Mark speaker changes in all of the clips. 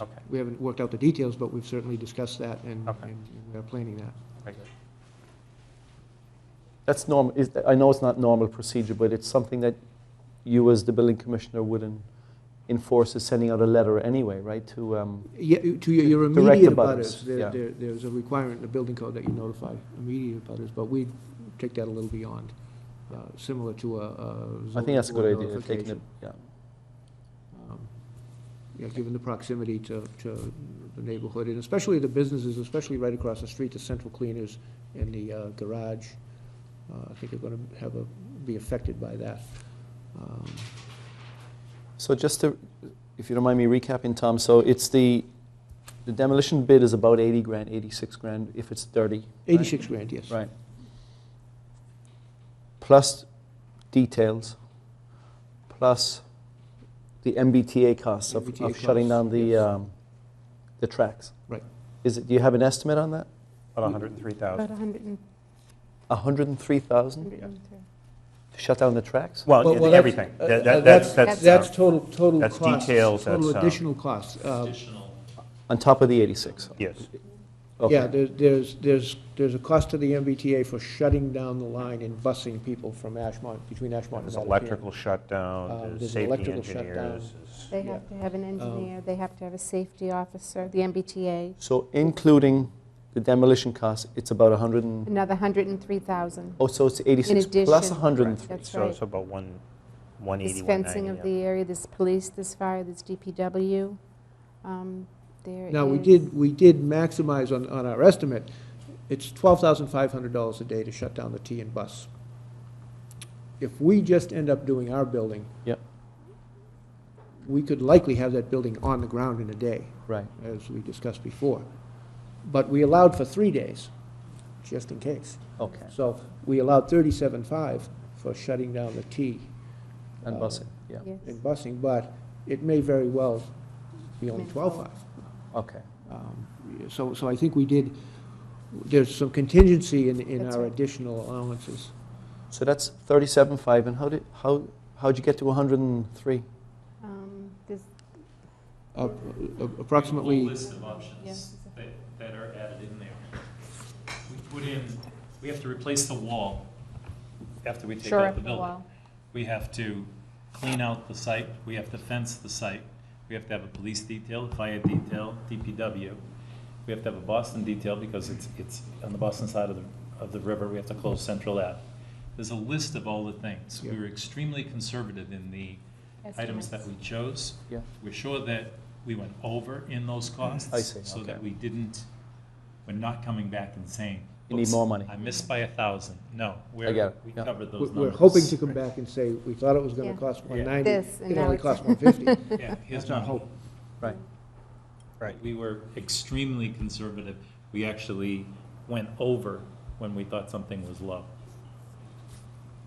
Speaker 1: Okay.
Speaker 2: We haven't worked out the details, but we've certainly discussed that and,
Speaker 1: Okay.
Speaker 2: and we are planning that.
Speaker 1: Very good.
Speaker 3: That's normal, is, I know it's not normal procedure, but it's something that you as the building commissioner wouldn't enforce is sending out a letter anyway, right, to, um,
Speaker 2: Yeah, to your, your
Speaker 3: Direct
Speaker 2: immediate
Speaker 3: abutters,
Speaker 2: abutters, there,
Speaker 3: yeah.
Speaker 2: there, there's a requirement in the building code that you notify immediate abutters, but we take that a little beyond, uh, similar to a, a.
Speaker 3: I
Speaker 2: zoning
Speaker 3: think that's a
Speaker 2: board
Speaker 3: good idea, taking it,
Speaker 2: notification.
Speaker 3: yeah.
Speaker 2: Um, Yeah, given the proximity to, to the neighborhood, and especially the businesses, especially right across the street, the central cleaners and the uh, garage, uh, I think are gonna have a, be affected by that. Um,
Speaker 3: So just to, if you don't mind me recapping, Tom, so it's the, the demolition bid is about eighty grand, eighty-six grand, if it's dirty. right?
Speaker 2: Eighty-six grand, yes.
Speaker 3: Right. Plus details, plus the MBTA costs of,
Speaker 2: MBTA
Speaker 3: of shutting
Speaker 2: costs,
Speaker 3: down the,
Speaker 2: yes.
Speaker 3: um, the tracks.
Speaker 2: Right.
Speaker 3: Is it, do you have an estimate on that?
Speaker 1: About 103,000.
Speaker 4: About 100 and,
Speaker 3: A hundred and three thousand
Speaker 4: 103.
Speaker 3: to shut down the tracks?
Speaker 2: Well,
Speaker 1: Well,
Speaker 2: well,
Speaker 1: it- everything.
Speaker 2: uh,
Speaker 1: That-
Speaker 2: uh,
Speaker 1: that- That's, that's,
Speaker 2: That's
Speaker 1: uh,
Speaker 2: total, total
Speaker 1: that's
Speaker 2: costs.
Speaker 1: details,
Speaker 2: Total
Speaker 1: that's, uh,
Speaker 2: additional costs. Uh,
Speaker 3: On top of the eighty-six?
Speaker 1: yes.
Speaker 3: Okay.
Speaker 2: Yeah, there- there's, there's, there's a cost to the MBTA for shutting down the line and busing people from Ashmont, between Ashmont and
Speaker 1: There's
Speaker 2: Mattapan.
Speaker 1: electrical
Speaker 2: Um,
Speaker 1: shutdown, there's
Speaker 2: there's
Speaker 1: safety
Speaker 2: electrical shutdown.
Speaker 1: engineers. there's-
Speaker 4: They
Speaker 2: Yeah.
Speaker 4: have to have an engineer, they have to have a safety officer, the MBTA,
Speaker 3: So including the demolition costs, it's about a hundred and,
Speaker 4: another 103,000.
Speaker 3: oh, so it's eighty-six plus a
Speaker 4: addition.
Speaker 3: hundred and three?
Speaker 4: That's
Speaker 1: So
Speaker 4: right.
Speaker 1: it's about one-
Speaker 4: There's
Speaker 1: 180,
Speaker 4: fencing of
Speaker 1: 190.
Speaker 4: the area, there's police, there's fire, there's DPW. um, There is...
Speaker 2: Now, we did, we did maximize on, on our estimate. It's twelve thousand five hundred dollars a day to shut down the T and bus. If we just end up doing our building.
Speaker 3: Yep.
Speaker 2: We could likely have that building on the ground in a day.
Speaker 3: Right.
Speaker 2: as we discussed before. But we allowed for three days, just in case.
Speaker 3: Okay,
Speaker 2: So we allowed thirty-seven-five for shutting down the T
Speaker 3: and
Speaker 2: Uh,
Speaker 3: busing, yeah,
Speaker 4: Yes.
Speaker 2: and busing, but it may very well be only
Speaker 4: Meant for-
Speaker 2: twelve-five.
Speaker 3: okay.
Speaker 2: Um, So, so I think we did, there's some contingency in, in
Speaker 4: That's
Speaker 2: our
Speaker 4: right.
Speaker 2: additional allowances.
Speaker 3: So that's thirty-seven five, and how did, how, how'd you get to hundred and three?
Speaker 4: Um, there's-
Speaker 2: Uh,
Speaker 5: A whole
Speaker 2: Approximately,
Speaker 5: list of options
Speaker 4: Yeah.
Speaker 5: that, that are added in there. We put in, we have to replace the wall after we take
Speaker 4: Sure,
Speaker 5: out
Speaker 4: up
Speaker 5: the
Speaker 4: the
Speaker 5: building.
Speaker 4: wall.
Speaker 5: We have to clean out the site, we have to fence the site, we have to have a police detail, fire detail, DPW. We have to have a Boston detail because it's, it's on the Boston side of the, of the river, we have to close Central Ave. There's a list of all the things. We
Speaker 2: Yeah.
Speaker 5: were extremely conservative in the items that we chose.
Speaker 3: Yeah.
Speaker 5: We're sure that we went over in those costs.
Speaker 3: Mm-hmm. I see,
Speaker 5: So that
Speaker 3: okay.
Speaker 5: we didn't, we're not coming back and saying.
Speaker 3: You need
Speaker 5: "Oops,
Speaker 3: more money."
Speaker 5: I missed by a thousand. No, we're.
Speaker 3: get it,
Speaker 5: We
Speaker 3: yeah.
Speaker 5: covered those
Speaker 2: we're
Speaker 5: numbers.
Speaker 2: we're hoping to come back and say, we thought it was gonna
Speaker 4: Yeah.
Speaker 2: cost
Speaker 5: Yeah.
Speaker 2: one ninety.
Speaker 4: This, and
Speaker 2: It
Speaker 4: now
Speaker 2: only
Speaker 4: it's-
Speaker 2: cost one fifty.
Speaker 5: Yeah, here's
Speaker 2: That's our
Speaker 5: my
Speaker 2: hope.
Speaker 5: hope.
Speaker 3: Right.
Speaker 5: Right, we were extremely conservative. We actually went over when we thought something was low.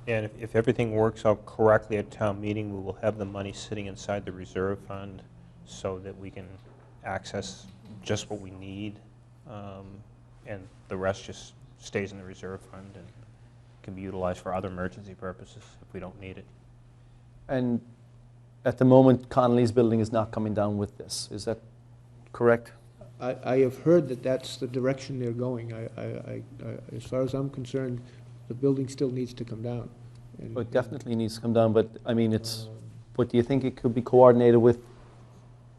Speaker 1: And if- if everything works out correctly at town meeting, we will have the money sitting inside the reserve fund so that we can access just what we need, um, and the rest just stays in the reserve fund and can be utilized for other emergency purposes if we don't need it.
Speaker 3: And at the moment, Connolly's building is not coming down with this, is that correct?
Speaker 2: I, I have heard that that's the direction they're going. I, I, I- I, as far as I'm concerned, the building still needs to come down. And-
Speaker 3: Oh, It definitely needs to come down, but, I mean, it's, but do you think it could be coordinated with,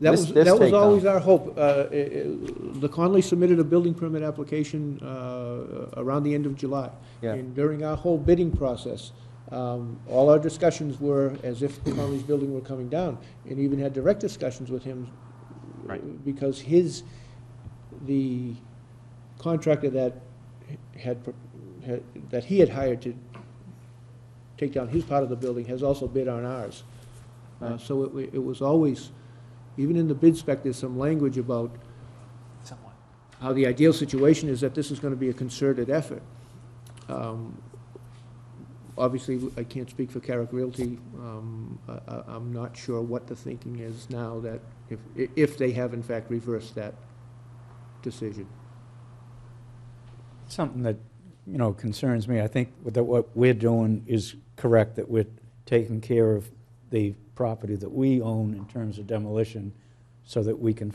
Speaker 2: That
Speaker 3: This-
Speaker 2: was,
Speaker 3: this
Speaker 2: that was
Speaker 3: takedown.
Speaker 2: always our hope. Uh, i- i- The Conley submitted a building permit application uh, around the end of July.
Speaker 3: Yeah.
Speaker 2: And during our whole bidding process, um, all our discussions were as if Conley's building were coming down, and even had direct discussions with him.
Speaker 1: Right.
Speaker 2: Because his, the contractor that had, pro- had- that he had hired to take down his part of the building has also bid on ours. Uh,
Speaker 3: Right.
Speaker 2: So it, wa- it was always, even in the bid spec, there's some language about
Speaker 5: Somewhat.
Speaker 2: how the ideal situation is that this is gonna be a concerted effort. Um, Obviously, I can't speak for Carrick Realty. Um, I, I, I'm not sure what the thinking is now that, if, i- if they have in fact reversed that decision.
Speaker 6: something that, you know, concerns me. I think that what we're doing is correct, that we're taking care of the property that we own in terms of demolition so that we can